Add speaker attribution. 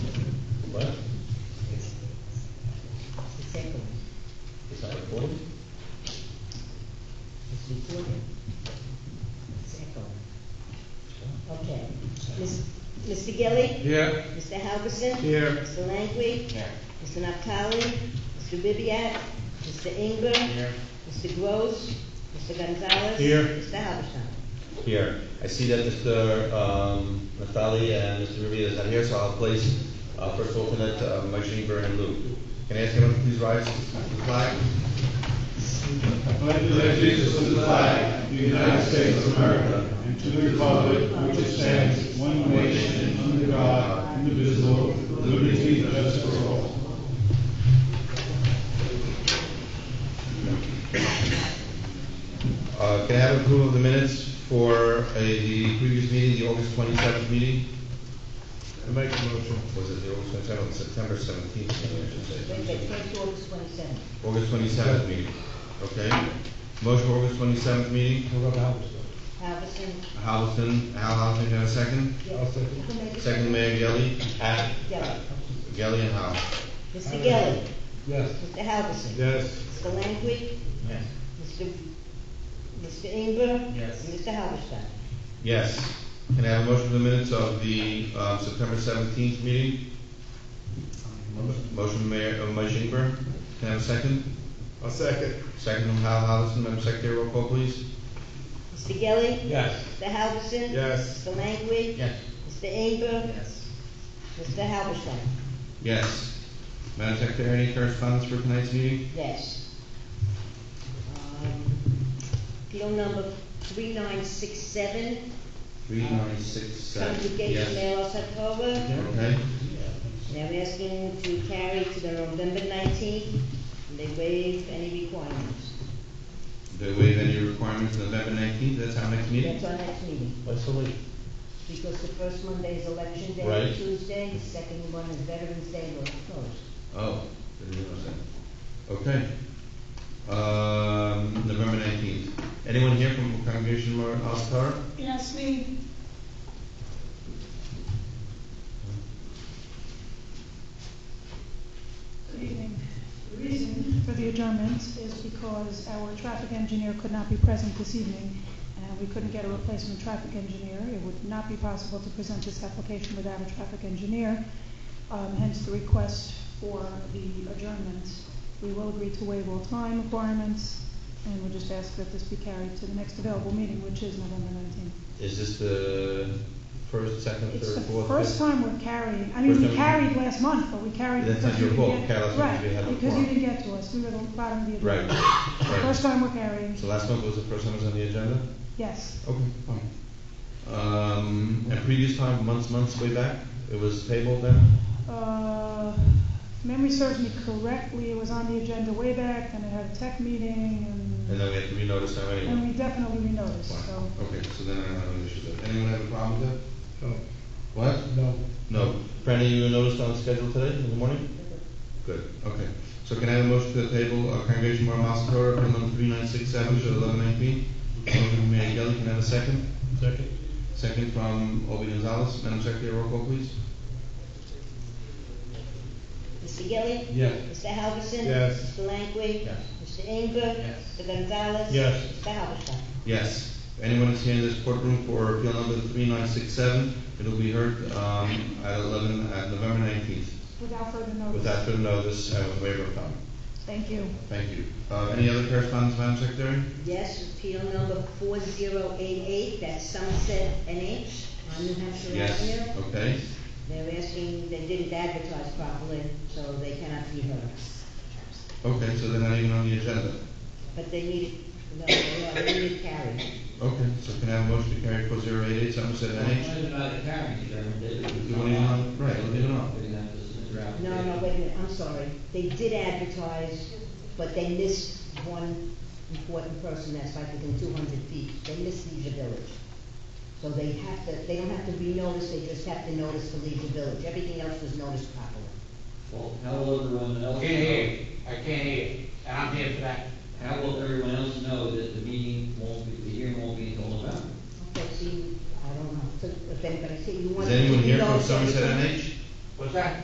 Speaker 1: Mr. Gilli,
Speaker 2: Here.
Speaker 1: Mr. Halverson.
Speaker 2: Here.
Speaker 1: Mr. Langley. Mr. Naftali, Mr. Ribbiat, Mr. Inger. Mr. Gross, Mr. Gonzalez.
Speaker 2: Here.
Speaker 1: Mr. Halverson.
Speaker 3: Here, I see that Mr. um, Natali and Mr. Rivia is not here, so I'll place uh, first alternate uh, Mike Greenberg and Lou. Can I ask everyone to please rise to the flag?
Speaker 4: allegiance to the flag of the United States of America and to the republic for which it stands one nation under God, indivisible, with liberty and justice for all.
Speaker 3: Uh, Can I have approval of the minutes for uh, the previous meeting, the August 27th meeting?
Speaker 2: I make a motion.
Speaker 3: Was it the August 27th, September 17th, meeting, I should
Speaker 1: Wait, wait,
Speaker 3: say?
Speaker 1: twenty-two, August twenty-seventh.
Speaker 3: August 27th meeting, okay? Motion for August 27th meeting,
Speaker 2: What about
Speaker 1: Halverson.
Speaker 3: Halverson, Al Halverson, can I have a second?
Speaker 2: I'll second.
Speaker 1: You can make it.
Speaker 3: Second, Mayor Gelli. Aye.
Speaker 1: Gilli.
Speaker 3: Gelli and Hal.
Speaker 1: Mr. Gilli,
Speaker 2: Yes.
Speaker 1: Mr. Halverson.
Speaker 2: Yes.
Speaker 1: Mr. Langley,
Speaker 5: Yes.
Speaker 1: Mr. Mr. Inger.
Speaker 5: Yes.
Speaker 1: And Mr. Halverson.
Speaker 3: Yes. Can I have a motion for the minutes of the um, September 17th meeting? Motion Mayor, uh, Mike Ingber. Can I have a second?
Speaker 2: I'll second.
Speaker 3: Second from Hal Halverson, Madam Secretary, roll call, please.
Speaker 1: Mr. Gilli,
Speaker 2: Yes.
Speaker 1: Mr. Halverson.
Speaker 2: Yes.
Speaker 1: Mr. Langley.
Speaker 5: Yes.
Speaker 1: Mr. Inger.
Speaker 5: Yes.
Speaker 1: Mr. Halverson.
Speaker 3: Yes. Madam Secretary, any correspondence for tonight's meeting?
Speaker 1: Yes. Um, Appeal number three nine six seven,
Speaker 3: Three nine six seven. Yes.
Speaker 1: Congregation Mayor Sepulveda.
Speaker 3: Okay.
Speaker 1: Now we're asking to carry to the November nineteenth, and they waive any requirements.
Speaker 3: They waive any requirements November 19th, that's our next meeting?
Speaker 1: That's our next meeting,
Speaker 3: What's the late?
Speaker 1: because the first Monday is election day,
Speaker 3: Right.
Speaker 1: Tuesday, the second one is Veterans Day, we're closed.
Speaker 3: Oh, didn't realize that. Okay. Um, November nineteenth. Anyone here from Congregation Mar Altar?
Speaker 6: Yes, me. Good evening. The reason for the adjournment is because our traffic engineer could not be present this evening, and we couldn't get a replacement traffic engineer. It would not be possible to present this application without a traffic engineer, um, hence the request for the adjournment. We will agree to waive all time requirements, and we'll just ask that this be carried to the next available meeting, which is November nineteenth.
Speaker 3: Is this the first, second,
Speaker 6: It's
Speaker 3: third,
Speaker 6: the
Speaker 3: fourth?
Speaker 6: first
Speaker 3: fifth?
Speaker 6: time we're carrying, I
Speaker 3: First
Speaker 6: mean, we
Speaker 3: time.
Speaker 6: carried last month, but we carried.
Speaker 3: That's
Speaker 6: because
Speaker 3: not your
Speaker 6: you didn't
Speaker 3: fault,
Speaker 6: get-
Speaker 3: Carlos, because you had a
Speaker 6: Right, because you
Speaker 3: quorum.
Speaker 6: didn't get to us, we were the bottom of the.
Speaker 3: Right,
Speaker 6: agenda. First
Speaker 3: right.
Speaker 6: time we're carrying,
Speaker 3: So last month was the first time it was on the agenda?
Speaker 6: yes,
Speaker 3: Okay, fine. Um, and previous time, months, months way back, it was tabled then?
Speaker 6: uh, if memory serves me correctly, it was on the agenda way back, then it had a tech meeting,
Speaker 3: And
Speaker 6: and,
Speaker 3: then we had to renotice now
Speaker 6: and
Speaker 3: anyway?
Speaker 6: we definitely renoticed, so.
Speaker 3: Fine. Okay, so then I don't have an issue with that. Anyone have a problem with that?
Speaker 2: No.
Speaker 3: What?
Speaker 2: No.
Speaker 3: No. Franny, you noticed on schedule today in the morning? Good, okay. So can I have a motion to the table, uh, Congregation Bar Master Torah, appeal number three nine six seven, show eleven nineteen? Motion from Mayor Gelli, can I have a second?
Speaker 2: Second.
Speaker 3: Second from Obi Gonzalez, Madam Secretary, roll call please.
Speaker 1: Mr. Gilli,
Speaker 2: Yes.
Speaker 1: Mr. Halverson.
Speaker 2: Yes.
Speaker 1: Mr. Langley.
Speaker 3: Yes.
Speaker 1: Mr. Inger.
Speaker 5: Yes.
Speaker 1: Mr. Gonzalez.
Speaker 2: Yes.
Speaker 1: Mr. Halverson.
Speaker 3: Yes. Anyone is here in this courtroom for appeal number three nine six seven, it'll be heard, um, at eleven, at November nineteenth,
Speaker 6: Without further notice.
Speaker 3: without further notice, and with waiver of time.
Speaker 6: Thank you.
Speaker 3: Thank you. Uh, any other correspondence, Madam Secretary?
Speaker 1: Yes, appeal number four zero eight eight, that's Sunset NH on New Hampshire Avenue.
Speaker 3: Yes, okay.
Speaker 1: They're asking, they didn't advertise properly, so they cannot be heard.
Speaker 3: Okay, so they're not even on the agenda.
Speaker 1: But they need, no, they are- they need carried.
Speaker 3: Okay, so can I have a motion to carry four zero eight eight Somerset NH? You want it on? Right, leave it on.
Speaker 1: No, no, wait a minute, I'm sorry. They did advertise, but they missed one important person that's like within two hundred feet. They missed Leisure Village. So they have to, they don't have to renotice, they just have to notice for Leisure Village. Everything else was noticed properly.
Speaker 7: Well, how will everyone else?
Speaker 5: Can't hear you, I can't hear you, and I'm here for that.
Speaker 7: How will everyone else know that the meeting won't be, the hearing won't be until November?
Speaker 1: Okay, see, I don't know, if anybody, see, you want.
Speaker 3: Is anyone here from
Speaker 1: notice everything?
Speaker 3: Somerset NH?
Speaker 5: What's that?